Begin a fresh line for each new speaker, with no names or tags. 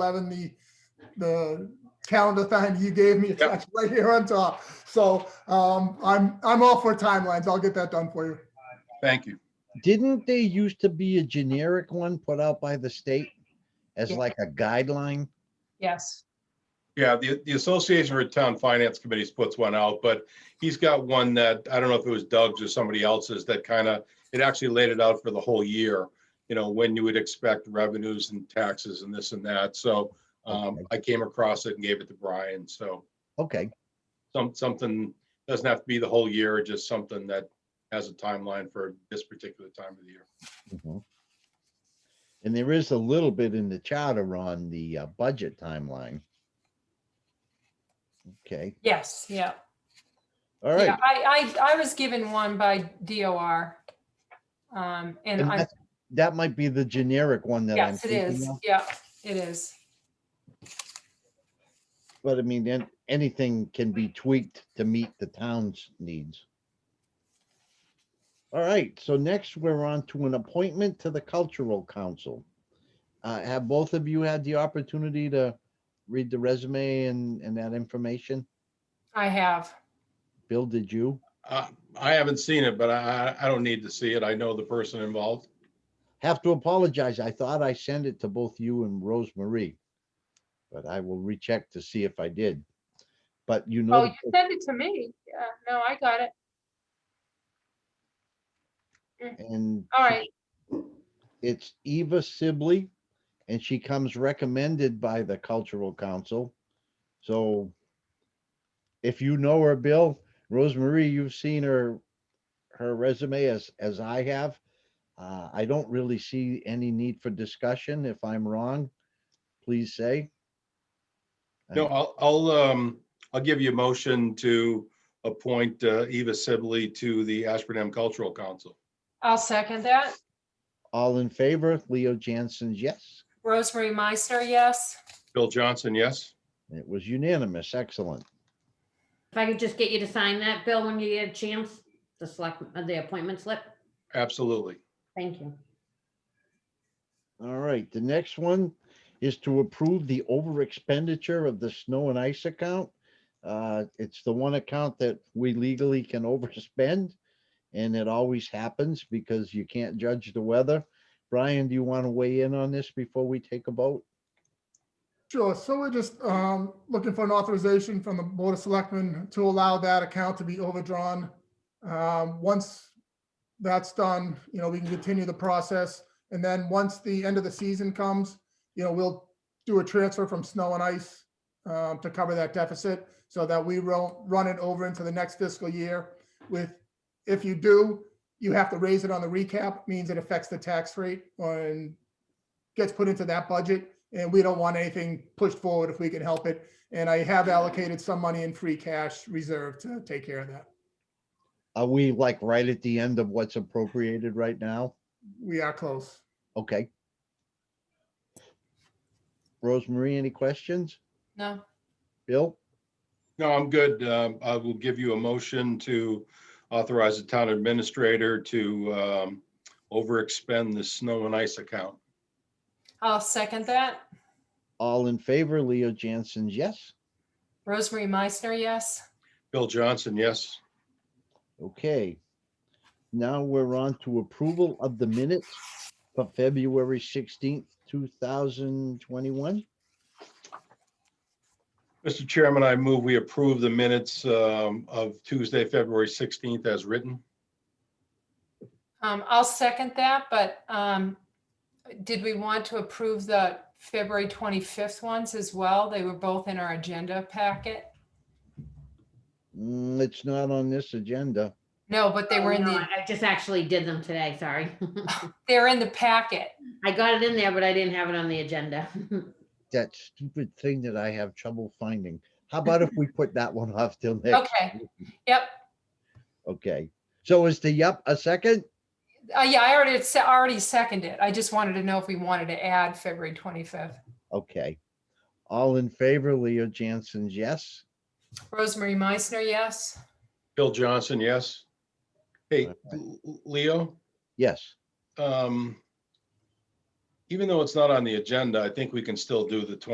eleven, the, the calendar thing you gave me, it's
Yep.
actually right here on top. So, um, I'm, I'm all for timelines. I'll get that done for you.
Thank you.
Didn't they used to be a generic one put out by the state as
Yeah.
like a guideline?
Yes,
Yeah, the, the Association for Town Finance Committees puts one out, but he's got one that, I don't know if it was Doug's or somebody else's that kind of, it actually laid it out for the whole year. You know, when you would expect revenues and taxes and this and that. So um,
Okay.
I came across it and gave it to Brian. So
Okay,
some, something, doesn't have to be the whole year, just something that has a timeline for this particular time of the year.
mhm. And there is a little bit in the charter on the uh, budget timeline. Okay,
yes, yeah.
all
Yeah,
right.
I, I, I was given one by DOR. Um, and
And
I,
that- That might be the generic one that I'm
yes, it
thinking
is.
of,
Yeah, it is.
but I mean, then anything can be tweaked to meet the town's needs. All right, so next we're on to an appointment to the Cultural Council. Uh, have both of you had the opportunity to read the resume and, and that information?
I have.
Bill, did you?
Uh, I haven't seen it, but I, I I don't need to see it. I know the person involved.
Have to apologize. I thought I sent it to both you and Rose Marie. But I will recheck to see if I did. But you know.
Oh,
the
you sent it to me. Yeah, no, I got it.
And
All right.
it's Eva Sibley, and she comes recommended by the Cultural Council. So if you know her, Bill, Rosemarie, you've seen her, her resume as, as I have. Uh, I don't really see any need for discussion. If I'm wrong, please say.
No, I'll, I'll, um, I'll give you a motion to appoint uh, Eva Sibley to the Ashburnham Cultural Council.
I'll second that.
All in favor, Leo Jansen's yes.
Rosemary Meister, yes.
Bill Johnson, yes?
It was unanimous. Excellent.
If I could just get you to sign that, Bill, when you get a chance, the select, uh, the appointment slip.
Absolutely.
Thank you.
All right, the next one is to approve the over expenditure of the snow and ice account. Uh, it's the one account that we legally can overspend. And it always happens because you can't judge the weather. Brian, do you want to weigh in on this before we take a vote?
Sure. So we're just um, looking for an authorization from the Board of Selectmen to allow that account to be overdrawn. Um, Once that's done, you know, we can continue the process. And then once the end of the season comes, you know, we'll do a transfer from snow and ice um, to cover that deficit so that we will run it over into the next fiscal year with, if you do, you have to raise it on the recap, means it affects the tax rate on gets put into that budget, and we don't want anything pushed forward if we can help it. And I have allocated some money in free cash reserve to take care of that.
Are we like right at the end of what's appropriated right now?
We are close.
Okay. Rosemarie, any questions?
No,
Bill?
No, I'm good. Um, I will give you a motion to authorize the town administrator to um, overexpend the snow and ice account.
I'll second that.
All in favor, Leo Jansen's yes.
Rosemary Meister, yes.
Bill Johnson, yes?
Okay. Now we're on to approval of the minutes for February sixteenth, two thousand twenty-one.
Mr. Chairman, I move we approve the minutes um, of Tuesday, February 16th as written.
Um, I'll second that, but, um, did we want to approve the February 25th ones as well? They were both in our agenda packet.
Mm, It's not on this agenda.
No, but they were in
Oh, no,
the,
I I just actually did them today, sorry.
they're in the packet.
I got it in there, but I didn't have it on the agenda.
That stupid thing that I have trouble finding. How about if we put that one off till next?
Okay, yep.
Okay, so is the yup a second?
Uh, yeah, I already, it's already seconded. I just wanted to know if we wanted to add February 25th.
Okay. All in favor, Leo Jansen's yes.
Rosemary Meissner, yes.
Bill Johnson, yes? Hey, L- Leo?
Yes,
um, even though it's not on the agenda, I think we can still do the